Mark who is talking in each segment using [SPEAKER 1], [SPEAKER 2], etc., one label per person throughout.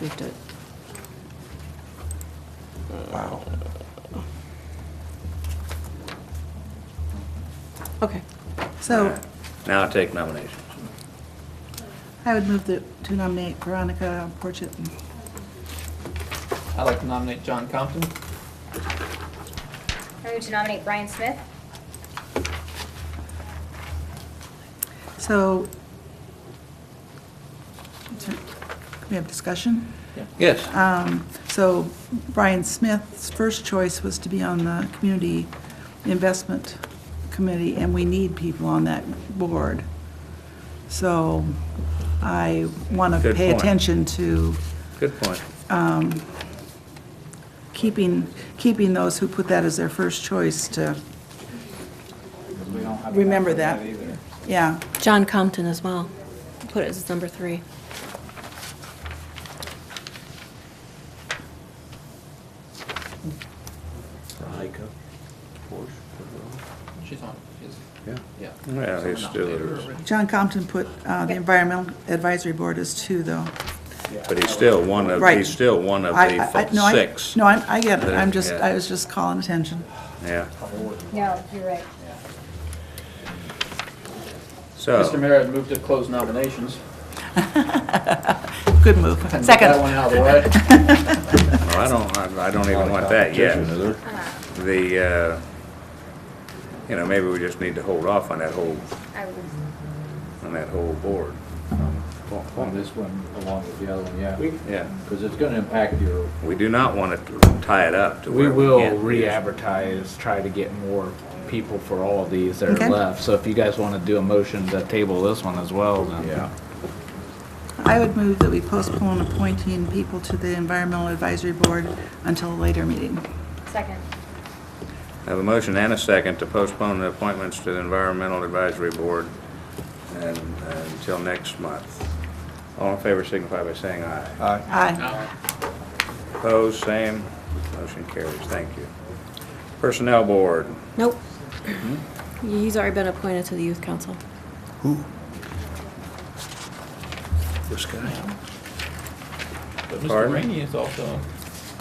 [SPEAKER 1] We've done,
[SPEAKER 2] Wow.
[SPEAKER 1] okay. So
[SPEAKER 3] Now I take nominations.
[SPEAKER 1] I would move that- to nominate Veronica Porchit.
[SPEAKER 4] I'd like to nominate John Compton.
[SPEAKER 5] I move to nominate Brian Smith.
[SPEAKER 1] So so, we have discussion.
[SPEAKER 3] Yes.
[SPEAKER 1] Um, So Brian Smith's first choice was to be on the Community Investment Committee, and we need people on that board. So I want to
[SPEAKER 3] Good
[SPEAKER 1] pay
[SPEAKER 3] point.
[SPEAKER 1] attention to
[SPEAKER 3] Good point.
[SPEAKER 1] keeping, keeping those who put that as their first choice to remember that. Yeah,
[SPEAKER 6] John Compton as well. Put it as number three.
[SPEAKER 4] She's on, she's,
[SPEAKER 3] Yeah.
[SPEAKER 4] yeah.
[SPEAKER 3] Yeah, he's still, is,
[SPEAKER 1] John Compton put uh, the Environmental Advisory Board as two, though.
[SPEAKER 3] but he's still one of,
[SPEAKER 1] Right.
[SPEAKER 3] he's still one of
[SPEAKER 1] I- I- I- no,
[SPEAKER 3] the
[SPEAKER 1] I-
[SPEAKER 3] six.
[SPEAKER 1] No, I I get it, I'm just,
[SPEAKER 3] Yeah.
[SPEAKER 1] I was just calling attention.
[SPEAKER 3] Yeah.
[SPEAKER 5] No, you're right.
[SPEAKER 4] Mr.
[SPEAKER 3] So,
[SPEAKER 4] Mayor, I'd move to close nominations.
[SPEAKER 1] Good move.
[SPEAKER 4] And get That
[SPEAKER 1] Second.
[SPEAKER 4] one out of the way.
[SPEAKER 3] well, I don't, I I don't even want that yet. The, uh, you know, maybe we just need to hold off on that whole,
[SPEAKER 5] I would,
[SPEAKER 3] on that whole board.
[SPEAKER 7] on this one along with the other one, yeah.
[SPEAKER 3] Yeah.
[SPEAKER 7] Because it's gonna impact your,
[SPEAKER 3] We do not want to tie it up to
[SPEAKER 7] we
[SPEAKER 3] where
[SPEAKER 7] will
[SPEAKER 3] can't use-
[SPEAKER 7] re-advertise, try to get more people for all of these that
[SPEAKER 1] Okay.
[SPEAKER 7] are left. So if you guys wanna do a motion to table this one as well, then. Yeah.
[SPEAKER 1] I would move that we postpone appointing people to the Environmental Advisory Board until a later meeting.
[SPEAKER 5] second.
[SPEAKER 3] I have a motion and a second to postpone the appointments to the Environmental Advisory Board and, uh, until next month. All in favor signify by saying aye.
[SPEAKER 1] Aye.
[SPEAKER 3] Opposed, same. Motion carries. Thank you. Personnel Board,
[SPEAKER 6] Nope. He's already been appointed to the youth council.
[SPEAKER 4] But Mr.
[SPEAKER 3] Pardon?
[SPEAKER 4] Rainey is also,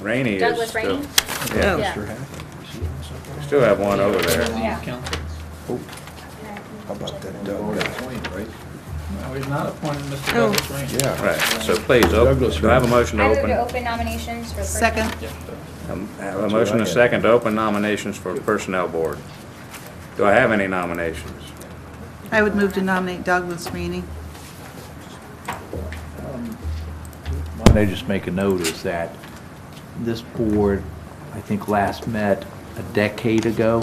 [SPEAKER 3] Rainey is
[SPEAKER 5] Douglas
[SPEAKER 3] still-
[SPEAKER 5] Rainey?
[SPEAKER 3] Yeah,
[SPEAKER 5] Yeah.
[SPEAKER 3] we still have one over there.
[SPEAKER 5] Yeah.
[SPEAKER 4] council.
[SPEAKER 2] How about that Doug guy?
[SPEAKER 4] No, we've not appointed Mr.
[SPEAKER 6] Oh.
[SPEAKER 4] Douglas Rainey.
[SPEAKER 2] Yeah.
[SPEAKER 3] Right, so please, op-
[SPEAKER 2] Douglas
[SPEAKER 3] do I have a motion to
[SPEAKER 5] I move
[SPEAKER 3] open?
[SPEAKER 5] to open nominations for. person-
[SPEAKER 1] Second.
[SPEAKER 4] Yeah, so-
[SPEAKER 3] Um, I have a motion and a second to open nominations for Personnel Board. Do I have any nominations?
[SPEAKER 1] I would move to nominate Douglas Rainey.
[SPEAKER 7] I just make a note is that this board, I think, last met a decade ago,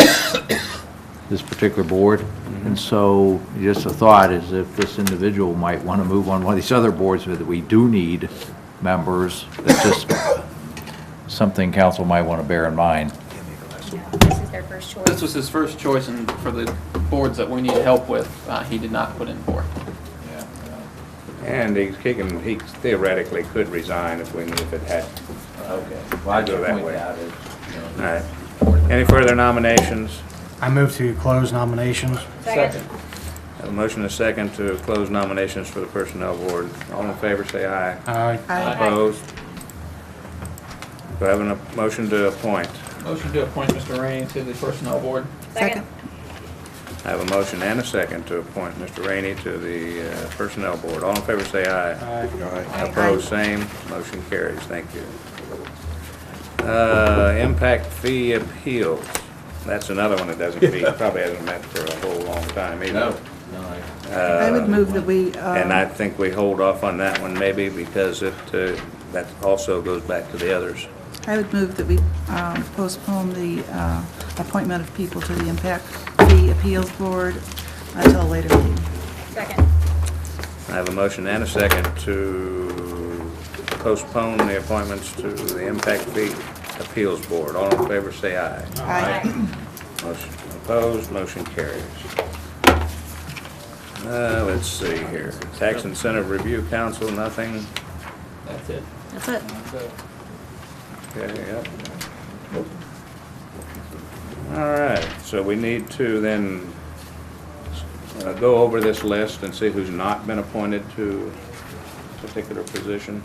[SPEAKER 7] this particular board.
[SPEAKER 3] Mm-hmm.
[SPEAKER 7] And so just a thought is if this individual might want to move on one of these other boards, that we do need members, that's just something council might want to bear in mind.
[SPEAKER 5] No, This is their first choice.
[SPEAKER 4] This was his first choice and for the boards that we need help with, uh, he did not put in for.
[SPEAKER 3] And he he can, he theoretically could resign if we, if it had.
[SPEAKER 7] Okay.
[SPEAKER 3] I go that way. All right. Any further nominations?
[SPEAKER 8] I move to close nominations.
[SPEAKER 5] Second.
[SPEAKER 3] Have a motion and a second to close nominations for the Personnel Board. All in favor, say aye.
[SPEAKER 8] Aye.
[SPEAKER 1] Aye.
[SPEAKER 3] Opposed? Do I have a motion to appoint?
[SPEAKER 4] Motion to appoint Mr. Rainey to the personnel board.
[SPEAKER 5] Second.
[SPEAKER 3] I have a motion and a second to appoint Mr. Rainey to the uh, Personnel Board. All in favor, say aye.
[SPEAKER 2] Aye.
[SPEAKER 3] Opposed, same. Motion carries. Thank you. Uh, Impact fee appeals. That's another one that doesn't be, probably hasn't met for a whole long time either.
[SPEAKER 1] I would move that we,
[SPEAKER 3] And I
[SPEAKER 1] uh,
[SPEAKER 3] think we hold off on that one maybe because it, uh, that also goes back to the others.
[SPEAKER 1] I would move that we um, postpone the uh, appointment of people to the Impact Fee Appeals Board until a later meeting.
[SPEAKER 5] Second.
[SPEAKER 3] I have a motion and a second to postpone the appointments to the Impact Fee Appeals Board. All in favor, say aye.
[SPEAKER 1] Aye.
[SPEAKER 3] Motion opposed, motion carries. Uh, let's see here. Tax Incentive Review Council, nothing.
[SPEAKER 4] That's it.
[SPEAKER 6] That's it.
[SPEAKER 3] Okay, yep. All right, so we need to then uh, go over this list and see who's not been appointed to a particular position.